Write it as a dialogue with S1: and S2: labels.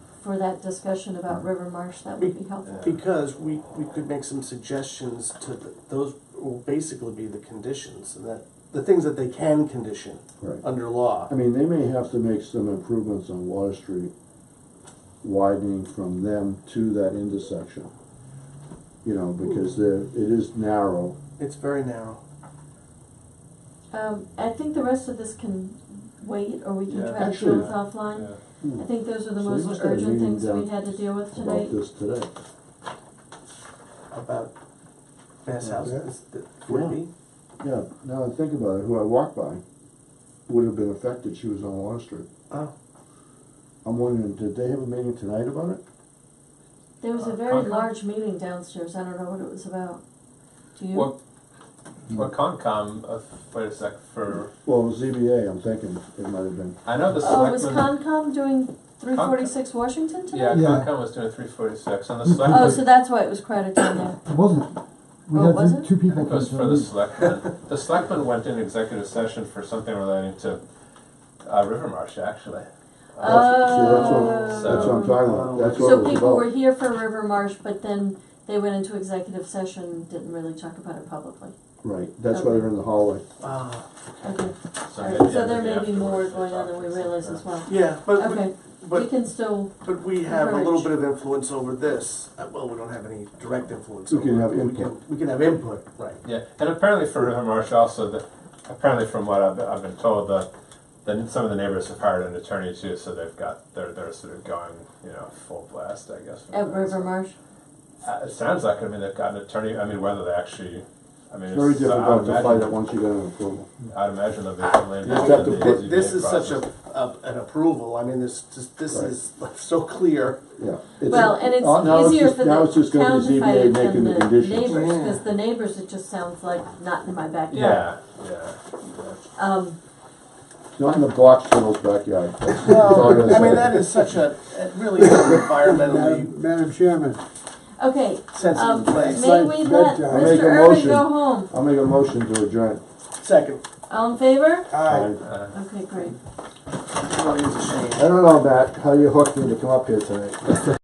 S1: for that discussion about River Marsh, that would be helpful.
S2: Because we, we could make some suggestions to, th- those will basically be the conditions, and that, the things that they can condition
S3: Right.
S2: under law.
S3: I mean, they may have to make some improvements on Water Street, widening from them to that intersection. You know, because
S4: Hmm.
S3: there, it is narrow.
S2: It's very narrow.
S1: Um, I think the rest of this can wait, or we can try
S4: Yeah.
S1: to deal
S3: Actually-
S1: with offline.
S4: Hmm.
S1: I think those are the
S3: So we
S1: most
S3: must have a
S1: urgent
S3: meeting
S1: things we
S3: down
S1: had to deal with tonight.
S3: About this today.
S2: about Bass
S3: Yeah.
S2: House, it's, it would be.
S3: Yeah, now I think about it, who I walked by would have been affected, she was on Water Street.
S2: Oh,
S3: I'm wondering, did they have a meeting tonight about it?
S1: There was a
S4: Uh,
S1: very
S4: Concom?
S1: large meeting downstairs, I don't know what it was about. Do you?
S4: Well, well, Concom, uh, wait a sec, for,
S3: Well, ZBA, I'm thinking it might have been.
S4: I know the
S1: Oh, was
S4: selectmen.
S1: Concom doing three forty-six Washington
S4: Yeah,
S1: tonight?
S4: Concom was doing three forty-six, and the
S1: Oh, so
S4: selectmen,
S1: that's why it was crowded down there.
S5: It wasn't. We
S1: Oh,
S5: had
S1: was
S5: two,
S1: it?
S5: two
S4: I
S5: people.
S4: think it was
S5: come
S4: for
S5: to
S4: the
S5: meet.
S4: selectmen, the selectmen went into executive session for something relating to, uh, River Marsh, actually.
S1: Oh.
S4: Uh,
S3: That's- see, that's what- That's what I'm talking
S2: Oh.
S3: about, that's what it
S1: So
S3: was
S1: people were
S3: about.
S1: here for River Marsh, but then they went into executive session, didn't really talk about it publicly.
S3: Right, that's why they're in the hallway.
S2: ah,
S1: Okay,
S4: so maybe
S1: alright, so there
S4: maybe
S1: may be more
S4: afterwards they
S1: going on
S4: talked
S1: than we
S4: or
S1: realize
S4: something.
S1: as well.
S2: yeah, but
S1: Okay,
S2: we,
S1: we
S2: but
S1: can still,
S2: but we have a little
S1: encourage.
S2: bit of influence over this. Uh, well, we don't have any direct influence.
S3: We
S2: over
S3: can
S2: it,
S3: have
S2: but We
S3: input.
S2: can, we can have input, right?
S4: Yeah, and apparently for River Marsh also, the, apparently from what I've, I've been told, the, the, some of the neighbors have hired an attorney too, so they've got, they're, they're sort of going, you know, full blast, I guess. for
S1: at
S4: that.
S1: River Marsh,
S4: Uh, it sounds like, I mean, they've got an attorney, I mean, whether they actually, I mean,
S3: It's very
S4: so I would
S3: difficult to fight it
S4: imagine-
S3: once you get an approval.
S4: I'd imagine they'll be heavily
S3: You just
S4: involved
S3: have
S4: in the
S3: to put-
S4: ZBA
S2: This is such a,
S4: process.
S2: a an approval. I mean, this just this
S3: Right.
S2: is so clear.
S3: Yeah. It's-
S1: well, and it's
S3: uh, now
S1: easier
S3: just-
S1: for
S3: Now it's
S1: the
S3: just gonna
S1: town
S3: be
S1: to fight it
S3: ZBA
S1: than
S3: making the
S1: the
S3: conditions.
S1: neighbors,
S2: Yeah.
S1: cause the neighbors, it just sounds like not in my backyard.
S4: Yeah, yeah, yeah.
S1: Um,
S3: Not in the box tunnel's backyard. That's- that's all I'm gonna
S2: I mean,
S3: say.
S2: that is such a it really is an environmentally
S5: Madam, Madam Chairman,
S1: okay, um,
S2: sensitive place.
S1: may we let
S5: bedtime.
S3: Make
S1: Mr.
S3: a
S1: Irvin
S3: motion.
S1: go home?
S3: I'll make a motion to adjourn.
S2: Second,
S1: All in favor?
S2: I
S4: Uh,
S1: Okay, great.
S2: really is a shame.
S3: I don't know, Matt, how you hooked me to come up here tonight.